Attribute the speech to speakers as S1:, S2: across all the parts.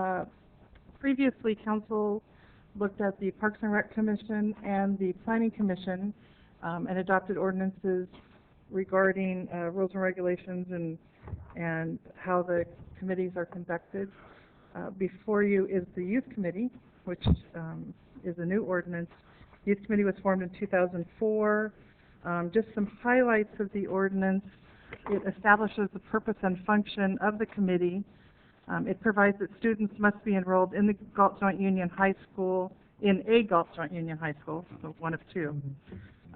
S1: Uh, previously council looked at the Parks and Rec Commission and the Planning Commission, um, and adopted ordinances regarding, uh, rules and regulations and, and how the committees are conducted. Uh, before you is the Youth Committee, which, um, is a new ordinance. Youth Committee was formed in two thousand four. Um, just some highlights of the ordinance. It establishes the purpose and function of the committee. Um, it provides that students must be enrolled in the Galt Joint Union High School, in a Galt Joint Union High School, so one of two.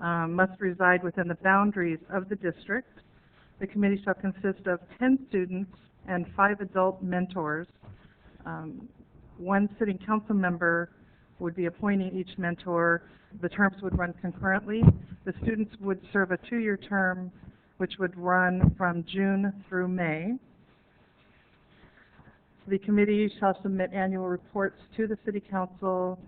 S1: Um, must reside within the boundaries of the district. The committee shall consist of ten students and five adult mentors. Um, one sitting council member would be appointing each mentor. The terms would run concurrently. The students would serve a two-year term, which would run from June through May. The committee shall submit annual reports to the city council.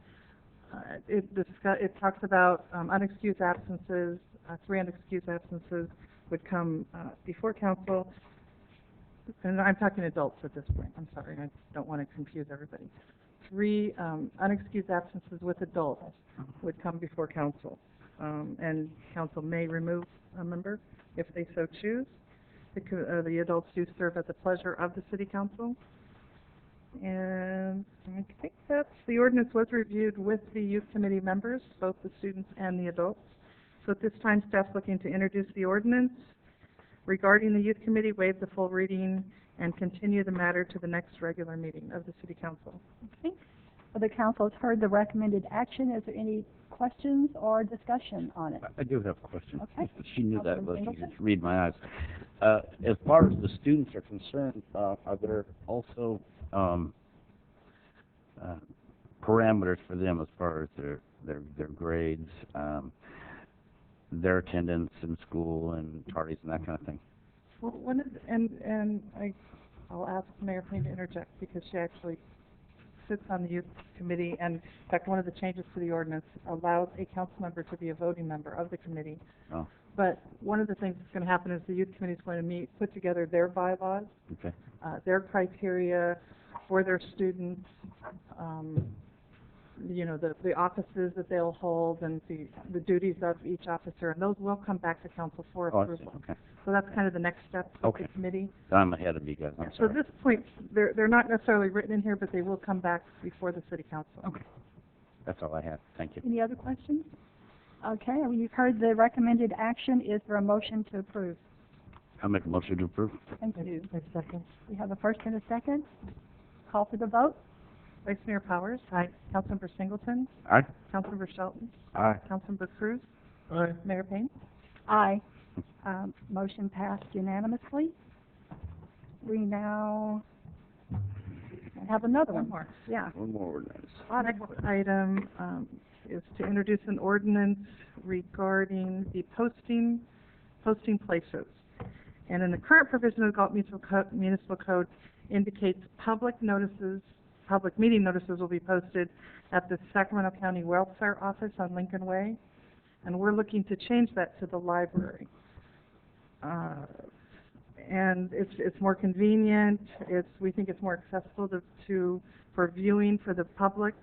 S1: Uh, It discuss, it talks about um, unexcused absences, uh, three unexcused absences would come uh, before council. And I'm talking adults at this point, I'm sorry, I don't want to confuse everybody. Three um, unexcused absences with adults would come before council. Um, And council may remove a member if they so choose. The co- uh, The adults do serve at the pleasure of the city council. And I think that's, the ordinance was reviewed with the youth committee members, both the students and the adults. So at this time, staff's looking to introduce the ordinance regarding the youth committee, waive the full reading, and continue the matter to the next regular meeting of the city council.
S2: Okay. Well, the council has heard the recommended action. Is there any questions or discussion on it?
S3: I- I do have a question.
S2: Okay.
S3: She knew that,
S2: Councilman
S3: but she
S2: Singleton?
S3: could read my eyes. Uh, as far as the students are concerned, uh, are there also, um, uh, parameters for them as far as their, their, their grades, um, their attendance in school and tardies and that kind of thing?
S1: Well, one of, the- and, and I, I'll ask Mayor Payne to interject because she actually sits on the youth committee and in fact, one of the changes to the ordinance allows a council member to be a voting member of the committee.
S3: Oh.
S1: But one of the things that's gonna happen is the youth committee's going to meet, put together their bylaws,
S3: Okay,
S1: uh, their criteria for their students, um, you know, the, the offices that they'll hold and the, the duties of each officer, and those will come back to council for
S3: oh, I see,
S1: approval.
S3: okay.
S1: So that's kind of the next step of the
S3: Okay.
S1: committee.
S3: I'm ahead of you guys, I'm
S1: So at
S3: sorry.
S1: this point, they're, they're not necessarily written in here, but they will come back before the city council.
S3: That's all I had, thank you.
S2: Any other questions? Okay, well, you've heard the recommended action. Is there a motion to approve?
S3: I'll make a motion to approve.
S2: Thank you.
S1: second.
S2: We have a first and a second. Call for the vote.
S1: Vice Mayor Powers? Aye. Councilmember Singleton?
S3: Aye?
S1: Councilmember Shelton?
S3: Aye.
S1: Councilmember Cruz?
S4: Aye.
S1: Mayor Payne?
S2: Aye. Um, motion passed unanimously. We now have another one.
S1: more.
S2: Yeah.
S3: One more ordinance.
S1: Next item, um, is to introduce an ordinance regarding the posting, posting places. And in the current provision of the Galt Municipal Co- Municipal Code indicates public notices, public meeting notices will be posted at the Sacramento County Welfare Office on Lincoln Way, and we're looking to change that to the library. Uh, and it's, it's more convenient, it's, we think it's more accessible to, to, for viewing for the public.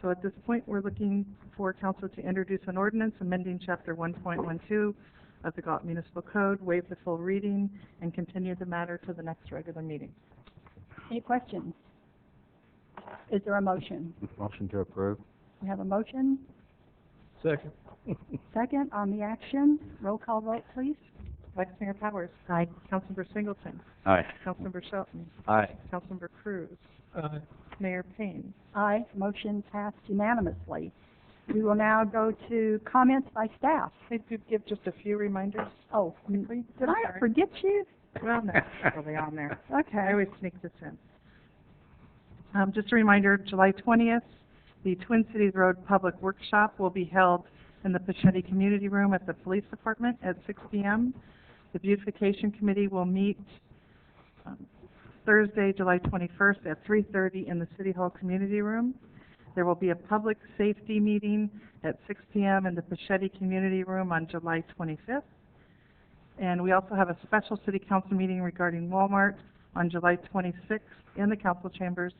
S1: So at this point, we're looking for council to introduce an ordinance amending chapter one point one two of the Galt Municipal Code, waive the full reading, and continue the matter to the next regular meeting.
S2: Any questions? Is there a motion?
S3: Motion to approve.
S2: We have a motion,
S4: Second.
S2: second on the action. Roll call vote, please.
S1: Vice Mayor Powers? Aye. Councilmember Singleton?
S3: Aye.
S1: Councilmember Shelton?
S3: Aye.
S1: Councilmember Cruz?
S4: Aye.
S1: Mayor Payne?
S2: Aye, motion passed unanimously. We will now go to comments by staff.
S1: Please do give just a few reminders,
S2: Oh, n-
S1: please.
S2: did I forget you?
S1: Well, no, probably on there. I
S2: Okay.
S1: always sneak this in. Um, just a reminder, July twentieth, the Twin Cities Road Public Workshop will be held in the Pachetti Community Room at the Police Department at six P M. The Beautification Committee will meet, um, Thursday, July twenty-first at three thirty in the City Hall Community Room. There will be a public safety meeting at six P M in the Pachetti Community Room on July twenty-fifth. And we also have a special city council meeting regarding Walmart on July 26th in the council chambers